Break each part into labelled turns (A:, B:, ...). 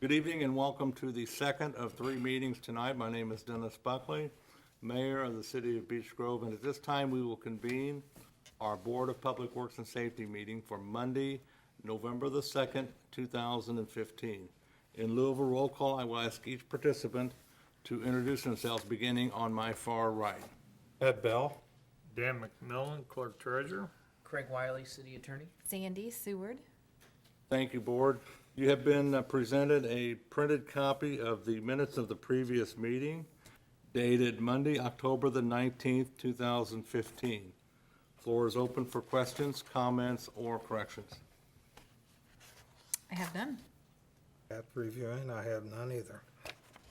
A: Good evening and welcome to the second of three meetings tonight. My name is Dennis Buckley, Mayor of the City of Beech Grove, and at this time, we will convene our Board of Public Works and Safety meeting for Monday, November the 2nd, 2015. In lieu of a roll call, I will ask each participant to introduce themselves, beginning on my far right.
B: Ed Bell.
C: Dan McMillan, Clerk Treasurer.
D: Craig Wiley, City Attorney.
E: Sandy Seward.
A: Thank you, Board. You have been uh, presented a printed copy of the minutes of the previous meeting dated Monday, October the 19th, 2015. Floor is open for questions, comments, or corrections.
E: I have none.
B: After reviewing, I have none either.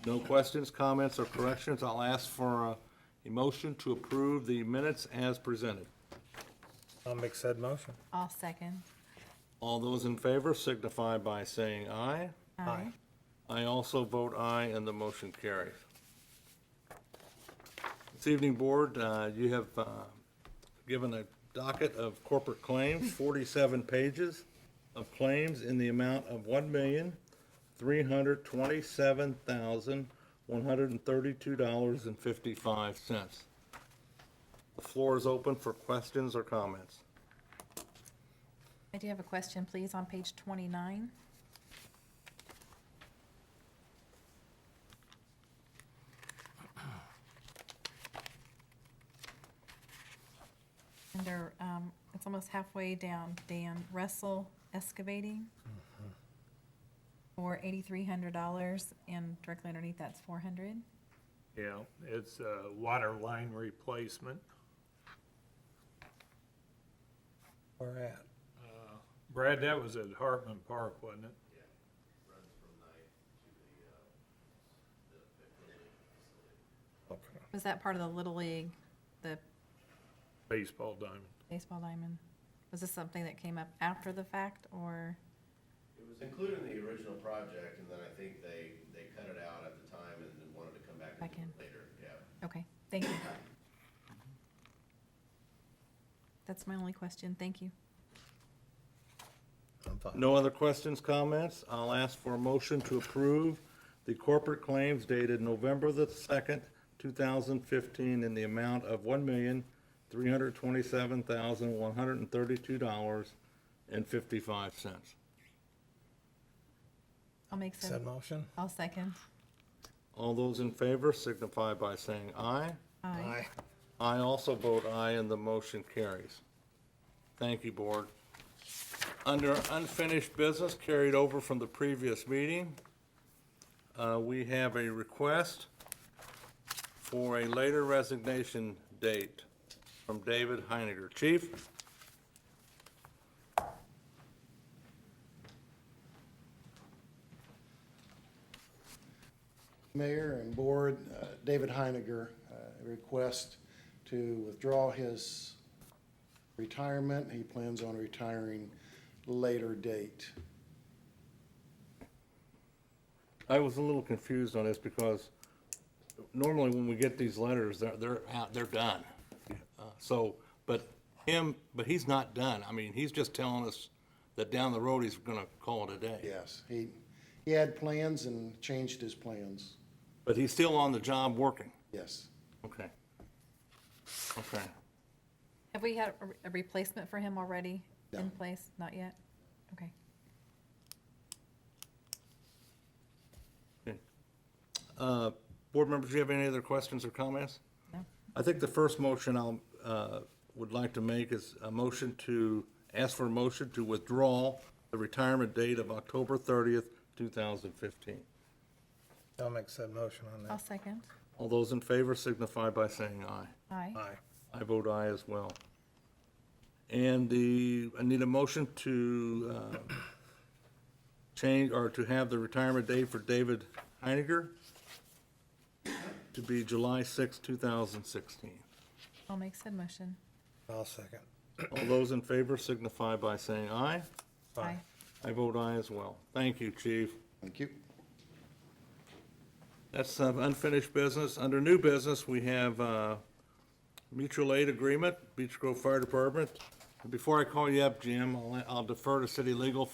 A: No questions, comments, or corrections. I'll ask for a- a motion to approve the minutes as presented.
B: I'll make said motion.
E: I'll second.
A: All those in favor signify by saying aye.
B: Aye.
A: I also vote aye, and the motion carries. This evening, Board, uh, you have uh, given a docket of corporate claims, 47 pages of claims in the amount of $1,327,132.55. The floor is open for questions or comments.
E: I do have a question, please, on page 29. Under, um, it's almost halfway down, Dan Russell Excavating for $8,300, and directly underneath that's 400.
C: Yeah, it's a water line replacement.
B: Where at?
C: Brad, that was at Hartman Park, wasn't it?
B: Okay.
E: Was that part of the Little League, the
C: Baseball diamond.
E: Baseball diamond. Was this something that came up after the fact or,
F: It was included in the original project, and then I think they, they cut it out at the time and then wanted to come back and
E: Back
F: do it
E: in.
F: later, yeah.
E: okay, thank you. That's my only question, thank you.
B: I'm fine.
A: No other questions, comments? I'll ask for a motion to approve the corporate claims dated November the 2nd, 2015, in the amount of $1,327,132.55.
E: I'll make
B: Said
E: seven,
B: motion?
E: I'll second.
A: All those in favor signify by saying aye.
E: Aye.
A: I also vote aye, and the motion carries. Thank you, Board. Under unfinished business carried over from the previous meeting, uh, we have a request for a later resignation date from David Heiniger. Chief?
G: Mayor and Board, uh, David Heiniger, uh, request to withdraw his retirement. He plans on retiring later date.
A: I was a little confused on this because normally when we get these letters, they're, they're out, they're done. Uh, So, but him, but he's not done. I mean, he's just telling us that down the road he's gonna call it a day.
G: Yes, he, he had plans and changed his plans.
A: But he's still on the job working.
G: Yes,
A: Okay. Okay.
E: Have we had a- a replacement for him already in
G: No.
E: place? Not yet? Okay.
A: Uh, Board members, do you have any other questions or comments?
E: No.
A: I think the first motion I'll, uh, would like to make is a motion to, ask for a motion to withdraw the retirement date of October 30th, 2015.
B: I'll make said motion on
E: I'll
B: that.
E: second.
A: All those in favor signify by saying aye.
E: Aye.
B: Aye.
A: I vote aye as well. And the, I need a motion to uh, change, or to have the retirement date for David Heiniger to be July 6, 2016.
E: I'll make said motion.
B: I'll second.
A: All those in favor signify by saying aye.
E: Aye.
A: I vote aye as well. Thank you, Chief.
G: thank you.
A: That's uh, unfinished business. Under new business, we have uh, mutual aid agreement, Beech Grove Fire Department. Before I call you up, Jim, I'll I'll defer to city legal